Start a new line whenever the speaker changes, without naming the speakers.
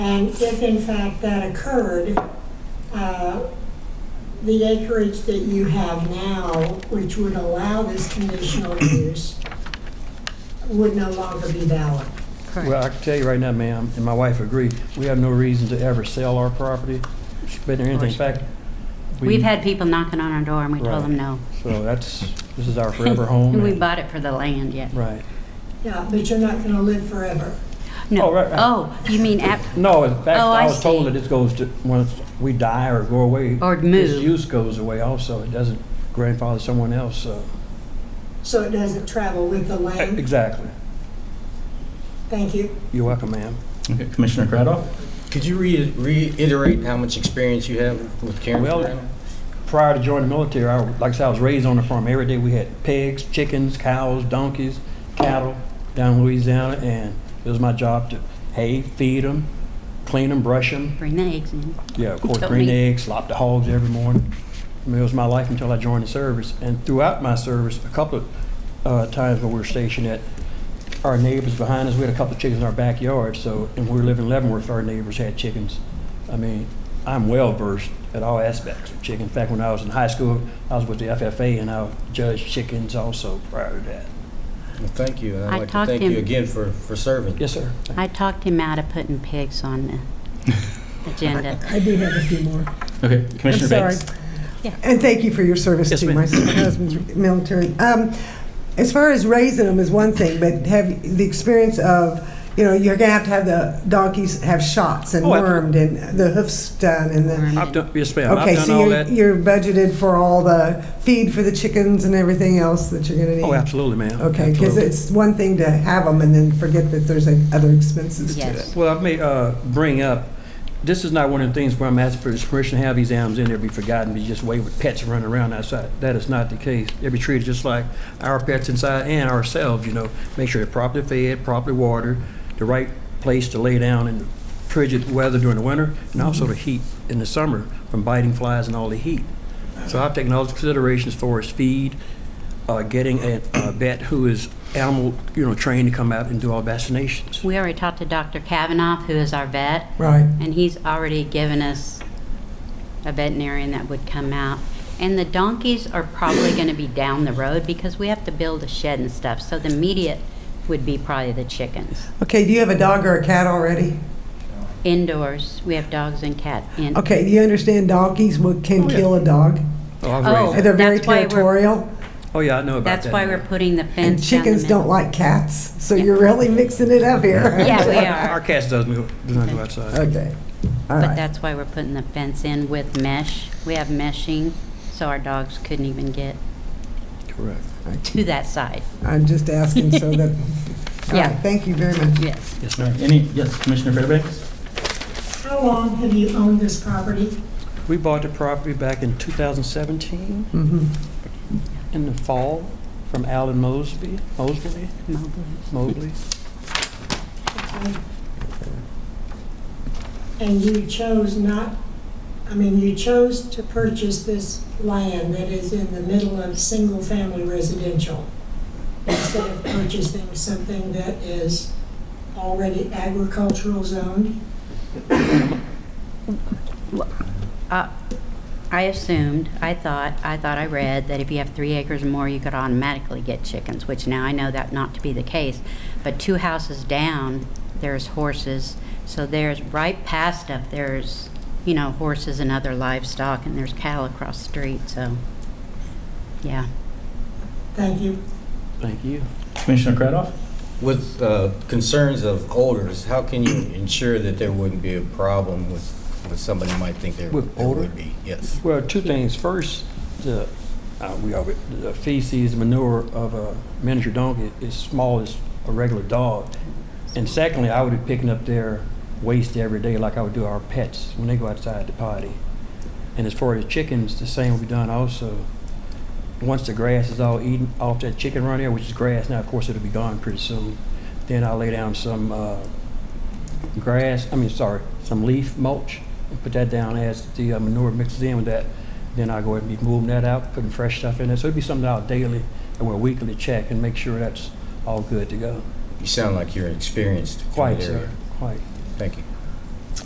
And if in fact that occurred, uh, the acreage that you have now, which would allow this conditional use, would no longer be valid.
Well, I can tell you right now, ma'am, and my wife agreed, we have no reason to ever sell our property, spend or anything. In fact, we-
We've had people knocking on our door and we
Right.
told them no.
So that's, this is our forever home.
And we
and-
bought it for the land, yeah.
Right.
Yeah, but you're not going to live forever.
No.
Oh, right, right.
Oh, you mean app,
No, in fact,
Oh,
I
I
was
see.
told that this goes to, once we die or go away.
Or
This
move.
use goes away also. It doesn't grandfather someone else, so.
So it doesn't travel with the land.
Exactly.
Thank you.
You're welcome, ma'am.
Okay, Commissioner Cradoff?
Could you re- reiterate how much experience you have with Karen
Well-
Ferrano?
Prior to joining the military, I, like I said, I was raised on a farm. Every day we had pigs, chickens, cows, donkeys, cattle down in Louisiana, and it was my job to hay, feed them, clean them, brush them.
bring the eggs in.
Yeah, of course,
Don't
green
need-
eggs, lop the hogs every morning. I mean, it was my life until I joined the service. And throughout my service, a couple of uh, times when we were stationed at our neighbors behind us, we had a couple of chickens in our backyard. So, and we were living in Leavenworth, our neighbors had chickens. I mean, I'm well versed at all aspects of chicken. In fact, when I was in high school, I was with the FFA and I judged chickens also prior to that.
Well, Thank you, and
I
I'd like to
talked
thank
him-
you again for, for serving.
Yes, sir.
I talked him out of putting pigs on the agenda.
I do have a few more.
Okay,
I'm
Commissioner
sorry.
Banks?
Yeah.
And thank you for your service
Yes,
to
ma'am.
my husband's military. Um, As far as raising them is one thing, but have the experience of, you know, you're gonna have to have the donkeys have shots and
Oh, I-
wormed and the hoofs done and the.
I've done, yes, ma'am.
Okay,
I've done
so
all
you're,
that.
you're budgeted for all the feed for the chickens and everything else that you're gonna need?
Oh, absolutely, ma'am.
Okay, because
Absolutely.
it's one thing to have them and then forget that there's like, other expenses to
Yes.
it.
Well, I may uh, bring up, this is not one of the things where I'm asking for this permission to have these animals in there be forgotten, be just wave with pets running around outside. That is not the case. They'll be treated just like our pets inside and ourselves, you know. Make sure they're properly fed, properly watered, the right place to lay down in frigid weather during the winter, and also the heat in the summer from biting flies and all the heat. So I've taken all the considerations for his feed, uh, getting a a vet who is animal, you know, trained to come out and do all vaccinations.
We already talked to Dr. Kavanoff, who is our vet,
Right.
and he's already given us a veterinarian that would come out. And the donkeys are probably going to be down the road because we have to build a shed and stuff. So the immediate would be probably the chickens.
Okay, do you have a dog or a cat already?
Indoors, we have dogs and cat. in-
Okay, do you understand donkeys would- can kill a dog?
Oh, I've
Oh.
raised
And They're very
That's why we're-
territorial.
Oh, yeah, I know about that.
That's why we're putting the
And
fence down the
chickens don't
middle.
like cats, so you're really mixing it up here.
Yeah, we
Our
are.
cats doesn't go, do not go outside.
Okay, all
But
right.
that's why we're putting the fence in with mesh. We have meshing, so our dogs couldn't even get
Correct.
to that side.
I'm just asking so that, all
Yeah.
right, thank you very much.
Yes.
Yes,
All
ma'am.
right, Any, yes, Commissioner Fairbanks?
How long have you owned this property?
We bought the property back in 2017
Mhm.
in the fall from Alan Mosby, Mosby,
Mobile.
Mobley.
And you chose not, I mean, you chose to purchase this land that is in the middle of single-family residential instead of purchasing something that is already agricultural zoned?
Uh, I assumed, I thought, I thought I read that if you have three acres or more, you could automatically get chickens, which now I know that not to be the case. But two houses down, there's horses, so there's, right past up, there's, you know, horses and other livestock, and there's cattle across the street, so, yeah.
Thank you.
Thank you.
Commissioner Cradoff?
With uh, concerns of odors, how can you ensure that there wouldn't be a problem with, with somebody might think there
With
there
odor?
would be? Yes.
Well, two things. First, the, uh, we are, the feces, manure of a miniature donkey is small as a regular dog. And secondly, I would be picking up their waste every day like I would do our pets when they go outside to potty. And as far as chickens, the same will be done also. Once the grass is all eaten off that chicken run there, which is grass now, of course, it'll be gone pretty soon. Then I'll lay down some, uh, grass, I mean, sorry, some leaf mulch, and put that down as the uh, manure mixes in with that. Then I go ahead and be moving that out, putting fresh stuff in there. So it'd be something I'll daily or weekly check and make sure that's all good to go.
You sound like you're experienced. in
Quite,
that area.
sir, quite.
Thank you.